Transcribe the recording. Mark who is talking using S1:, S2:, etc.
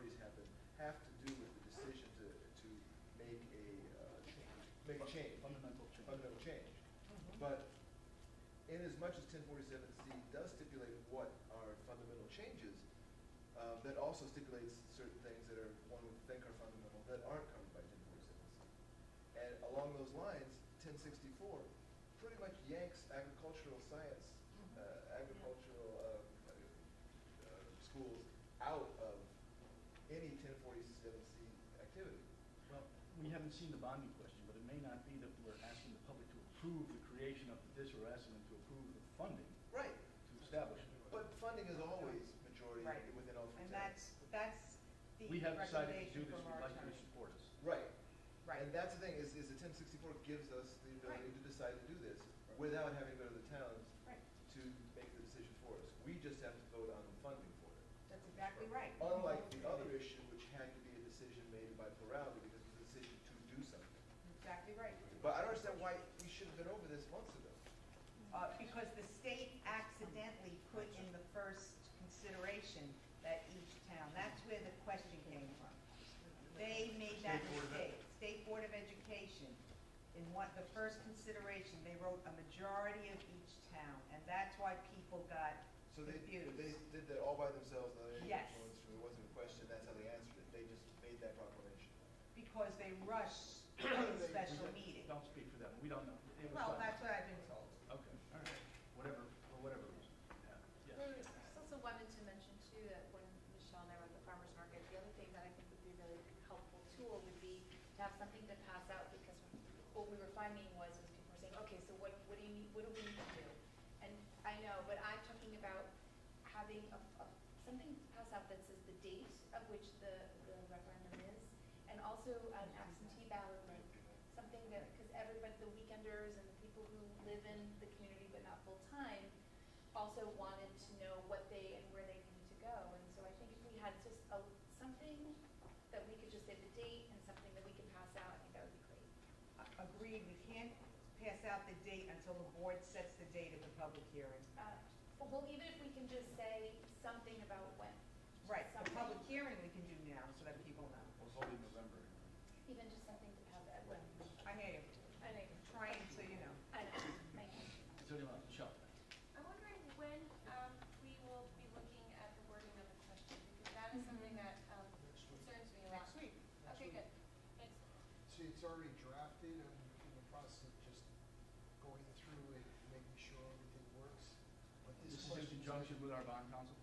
S1: big uh, change,
S2: Fundamental change.
S1: fundamental change.
S3: Mm-hmm.
S1: But in as much as ten forty-seven C does stipulate what are fundamental changes, uh, that also stipulates certain things that are, one would think are fundamental, that aren't covered by ten forty-seven C. And along those lines, ten sixty-four pretty much yanks agricultural science, uh, agricultural, uh, uh, schools out of any ten forty-seven C activity.
S2: Well, we haven't seen the bonding question, but it may not be that we're asking the public to approve the creation of this, we're asking them to approve the funding
S1: Right,
S2: to establish it.
S1: but funding is always majority
S3: Right.
S1: within all three
S3: And
S1: towns.
S3: that's, that's the
S2: We have decided to do
S3: recommendation
S2: this,
S3: from
S2: we'd
S3: our
S2: like you to support
S3: attorney.
S2: us.
S1: Right.
S3: Right.
S1: And that's the thing, is, is the ten sixty-four gives us the ability
S3: Right.
S1: to decide to do this without having to go to the towns
S3: Right,
S1: to make the decision for us. We just have to vote on the funding for it.
S3: that's exactly right.
S1: Unlike the other issue, which had to be a decision made by plurality because it was a decision to do something.
S3: Exactly right.
S1: But I don't understand why we should have been over this months ago.
S3: Uh, Because the state accidentally put in the first consideration that each town, that's where the question came from. They made that
S2: State Board of Ed-
S3: mistake. State Board of Education, in what, the first consideration, they wrote a majority of each town, and that's why people got
S1: So they, but they
S3: confused.
S1: did that all by themselves, not any
S3: Yes.
S1: influence from, it wasn't a question, that's how they answered it. They just made that proclamation.
S3: Because they rushed the special
S2: We-
S3: meeting.
S2: Don't speak for them, we don't know. It was
S3: Well,
S2: done.
S3: that's what I've been told.
S2: Okay, all right, whatever, for whatever reason, yeah, yes.
S4: There's also wanted to mention too, that when Michelle and I were at the farmer's market, the other thing that I think would be a really helpful tool would be to have something to pass out, because what we were finding was, was people were saying, okay, so what, what do you need, what do we need to do? And I know, but I'm talking about having a, a- something pass out that says the date of which the, the referendum is, and also an absentee ballot link, something that, because everybody, the weekenders and the people who live in the community but not full-time, also wanted to know what they and where they needed to go. And so I think if we had just a, something that we could just say the date and something that we could pass out, I think that would be great.
S3: A- Agreed, we can't pass out the date until the board sets the date of the public hearing.
S4: Uh, but Well, even if we can just say something about when.
S3: Right, the
S4: Something.
S3: public hearing we can do now, so that people know.
S2: We'll hold it in November.
S4: Even just something to have at when.
S3: I hear you,
S4: I know,
S3: trying to, you know.
S4: I know, I know.
S2: Is there anyone, Michelle?
S5: I'm wondering when um, we will be looking at the wording of the question, because that is something that um, concerns me a lot.
S3: Next week.
S5: Okay, good. Thanks.
S6: See, it's already drafted, I'm in the process of just going through and making sure everything works. But
S2: This is in
S6: question
S2: conjunction with our bond council?